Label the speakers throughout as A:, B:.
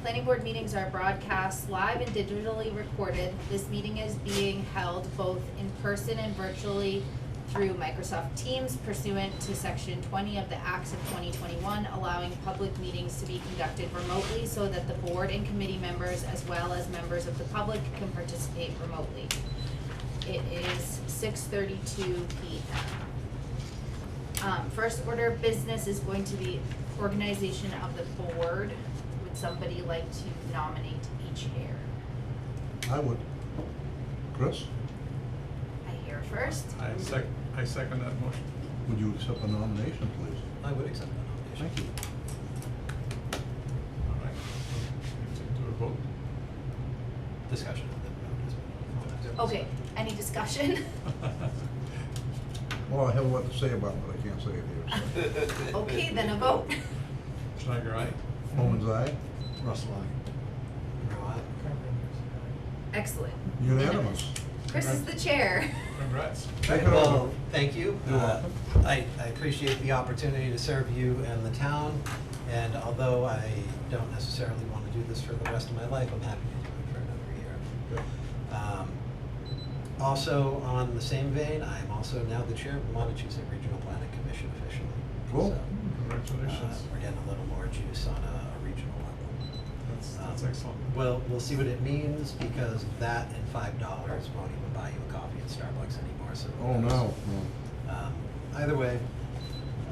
A: Planning board meetings are broadcast live and digitally recorded. This meeting is being held both in person and virtually through Microsoft Teams pursuant to section twenty of the Acts of twenty twenty-one, allowing public meetings to be conducted remotely so that the board and committee members as well as members of the public can participate remotely. It is six thirty-two P M. Um, first order of business is going to be organization of the board. Would somebody like to nominate a chair?
B: I would. Chris,
A: I hear it first.
C: I sec, I second that motion.
B: would you accept a nomination, please?
D: I would accept that nomination.
B: Thank you.
C: All right. We have to Do a vote.
D: Discussion. of the-
A: Okay, any discussion?
B: Well, I have a lot to say about it, but I can't say it here.
A: Okay, then a vote.
C: Schneider, aye?
B: so. Woman's eye,
D: Russell, aye. Monroe, aye.
A: Excellent.
B: unanimous.
A: Chris is the chair.
C: Congrats.
B: Take it
D: Well,
B: over.
D: thank you.
B: You're
D: Uh,
B: welcome.
D: I, I appreciate the opportunity to serve you and the town, and although I don't necessarily want to do this for the rest of my life, I'm happy to do it for another year.
B: Good.
D: Um, Also, on the same vein, I am also now the chair of the Montechusett Regional Planning Commission officially.
B: Cool.
D: So, uh,
C: Congratulations.
D: We're getting a little more juice on a a regional level.
C: That's, that's
D: Um,
C: excellent.
D: Well, we'll see what it means because that and five dollars won't even buy you a coffee at Starbucks anymore, so. who
B: Oh,
D: knows?
B: no,
D: Um, Either way,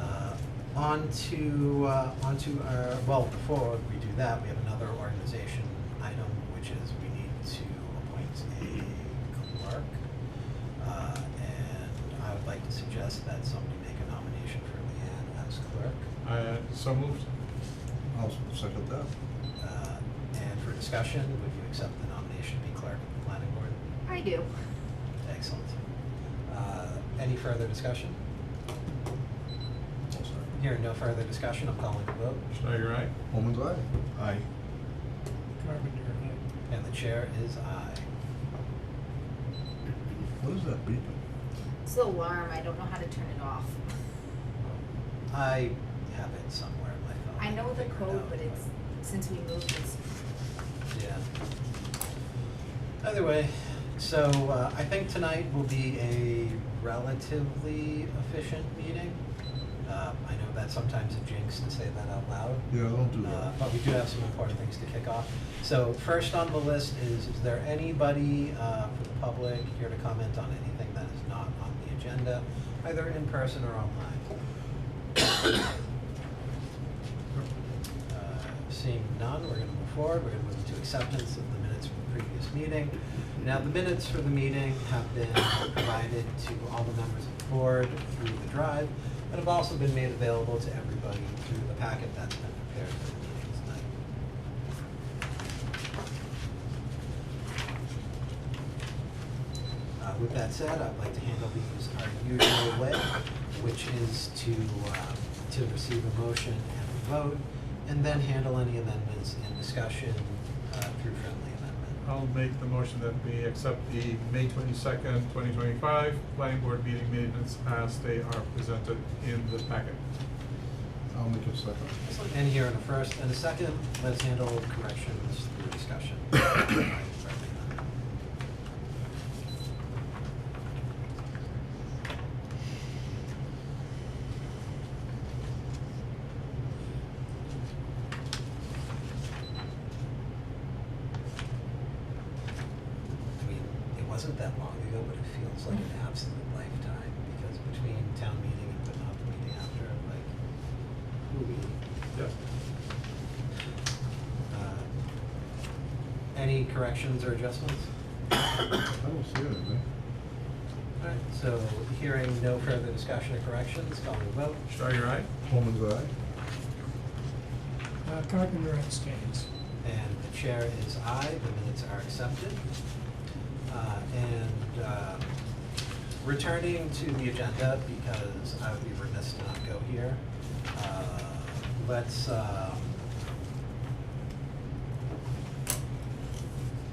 D: uh, on to, uh, on to our, well, before we do that, we have another organization item, which is we need to appoint a clerk. Uh, And I would like to suggest that somebody make a nomination for Leanne as clerk.
C: I, uh, so moved.
B: I'll second that.
D: Uh, And for discussion, would you accept the nomination to be clerk of the planning board?
A: I do.
D: Excellent. Uh, Any further discussion?
B: I'll second.
D: Hearing no further discussion, I'm calling the vote,
C: Schneider, aye?
B: Woman's eye.
C: Aye.
E: Carpenter, aye.
D: and the chair is aye.
B: What is that beeping?
A: It's the alarm. I don't know how to turn it off.
D: I have it somewhere in my phone.
A: I know the
D: figured it
A: code,
D: out,
A: but it's, since we moved, it's,
D: Yeah. Either way, so uh, I think tonight will be a relatively efficient meeting. Uh, I know that sometimes it jinx to say that out loud,
B: Yeah, don't do
D: Uh,
B: that.
D: But we do have some important things to kick off. So first on the list is, is there anybody uh, from the public here to comment on anything that is not on the agenda, either in person or online? Uh, Seeing none, we're gonna move forward. We're gonna move to acceptance of the minutes from the previous meeting. Now, the minutes for the meeting have been provided to all the members of the board through the drive and have also been made available to everybody through the packet that's been prepared for the meeting tonight. Uh, With that said, I'd like to handle these our usual way, which is to, uh, to receive a motion and a vote, and then handle any amendments and discussion uh, through friendly amendment.
C: I'll make the motion that we accept the May twenty-second, twenty twenty-five planning board meeting minutes as they are presented in the packet.
B: I'll make a second.
D: And here in a first and a second, let's handle corrections through discussion. Friendly amendment. I mean, it wasn't that long ago, but it feels like an absolute lifetime, because between town meeting and putting off the meeting after, like, ooh.
C: Yeah.
D: Uh, Any corrections or adjustments?
B: I don't see anything.
D: Alright, so hearing no further discussion or corrections, call the vote.
C: Schneider, aye?
B: Woman's eye.
E: Uh, Carpenter abstains.
D: And the chair is aye, the minutes are accepted. Uh, And uh, returning to the agenda, because I would be remiss to not go here, uh, let's, um,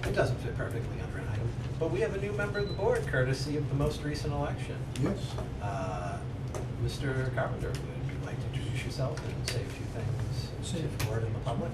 D: it doesn't fit perfectly under an item, but we have a new member of the board courtesy of the most recent election.
B: Yes.
D: Uh, Mr. Carpenter, would you like to introduce yourself and say a few things to
E: Say-
D: the board and the public?